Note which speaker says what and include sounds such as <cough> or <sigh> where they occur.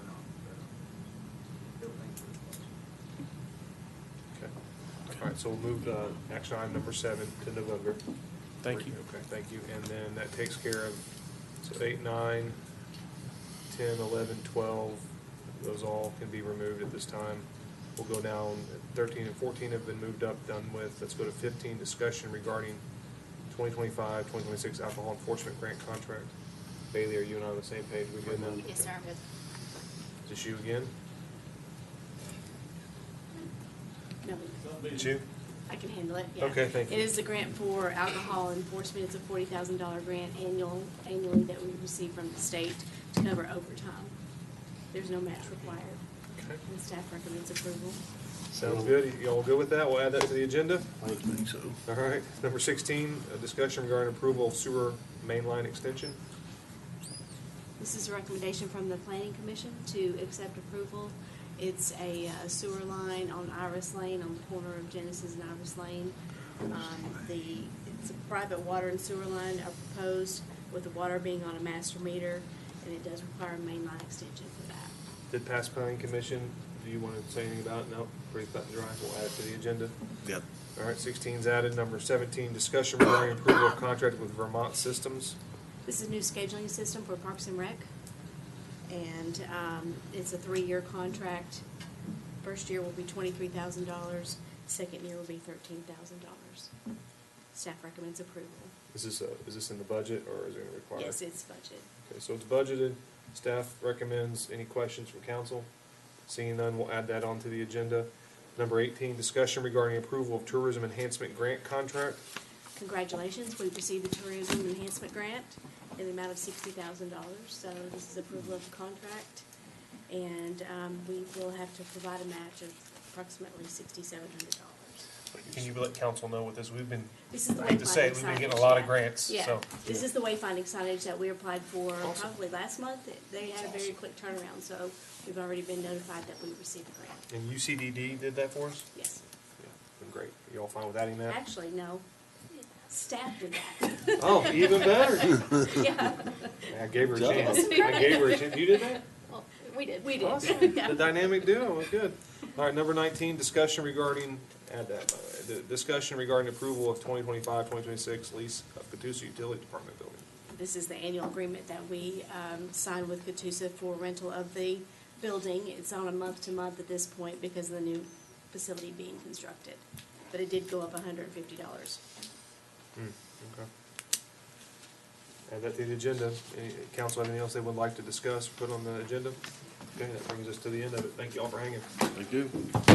Speaker 1: All right, so we'll move uh, action item number seven to November.
Speaker 2: Thank you.
Speaker 1: Okay, thank you. And then that takes care of, so eight, nine, ten, eleven, twelve, those all can be removed at this time. We'll go down, thirteen and fourteen have been moved up, done with. Let's go to fifteen, discussion regarding 2025-2026 alcohol enforcement grant contract. Bailey, are you and I on the same page? We good now?
Speaker 3: Yes, sir, I'm good.
Speaker 1: Is this you again?
Speaker 3: No,
Speaker 1: It's you?
Speaker 3: I can handle it, yeah.
Speaker 1: Okay, thank you.
Speaker 3: It is the grant for alcohol enforcement. It's a forty thousand dollar grant annual, annually that we receive from the state to cover overtime. There's no match required,
Speaker 1: Okay.
Speaker 3: and staff recommends approval.
Speaker 1: Sounds good. Y'all good with that? We'll add that to the agenda.
Speaker 4: I would think so.
Speaker 1: All right, number sixteen, a discussion regarding approval of sewer main line extension.
Speaker 3: This is a recommendation from the planning commission to accept approval. It's a uh, sewer line on Iris Lane, on the corner of Genesis and Iris Lane. Um, The, it's a private water and sewer line are proposed with the water being on a master meter, and it does require a main line extension for that.
Speaker 1: Did pass planning commission, do you want to say anything about it? No, pretty cut and dry, we'll add it to the agenda.
Speaker 4: Yep.
Speaker 1: All right, sixteen's added. Number seventeen, discussion regarding approval of contract with Vermont Systems.
Speaker 3: This is a new scheduling system for Parks and Rec, and um, it's a three-year contract. First year will be twenty-three thousand dollars, second year will be thirteen thousand dollars. Staff recommends approval.
Speaker 1: Is this, a- is this in the budget or is it gonna require?
Speaker 3: Yes, it's budget.
Speaker 1: Okay, so it's budgeted. Staff recommends. Any questions from council? Seeing none, we'll add that onto the agenda. Number eighteen, discussion regarding approval of tourism enhancement grant contract.
Speaker 3: Congratulations, we received the Tourism Enhancement Grant in the amount of sixty thousand dollars, so this is approval of the contract. And um, we will have to provide a match of approximately sixty-seven hundred dollars.
Speaker 1: Can you let council know what this, we've been,
Speaker 3: This is the
Speaker 1: I hate to
Speaker 3: wayfinding
Speaker 1: say it, we've been getting a
Speaker 3: signage,
Speaker 1: lot of
Speaker 3: yeah.
Speaker 1: grants,
Speaker 3: Yeah,
Speaker 1: so.
Speaker 3: this is the wayfinding signage that we applied for
Speaker 1: Awesome.
Speaker 3: probably last month. It- They had a very quick turnaround, so we've already been notified that we received the grant.
Speaker 1: and UCDD did that for us?
Speaker 3: Yes.
Speaker 1: Yeah, Been great. You all fine with adding that?
Speaker 3: Actually, no, staff did that.
Speaker 1: <laughs>
Speaker 3: <laughs>
Speaker 1: Oh, even better.
Speaker 3: Yeah,
Speaker 1: I gave her a
Speaker 4: Good
Speaker 1: chance. I gave her a chance. You did that?
Speaker 3: Well, we did. <laughs> We
Speaker 1: Awesome.
Speaker 3: did. <laughs> Yeah.
Speaker 1: The dynamic duo, was good. All right, number nineteen, discussion regarding, add that, by the way, the discussion regarding approval of 2025-2026 lease of Catoosa Utility Department building.
Speaker 3: This is the annual agreement that we um, sign with Catoosa for rental of the building. It's on a month-to-month at this point because of the new facility being constructed. But it did go up hundred and fifty dollars.
Speaker 1: Okay. Add that to the agenda. Any, council, anything else they would like to discuss, put on the agenda? Okay, that brings us to the end of it. Thank you all for hanging.
Speaker 4: Thank you.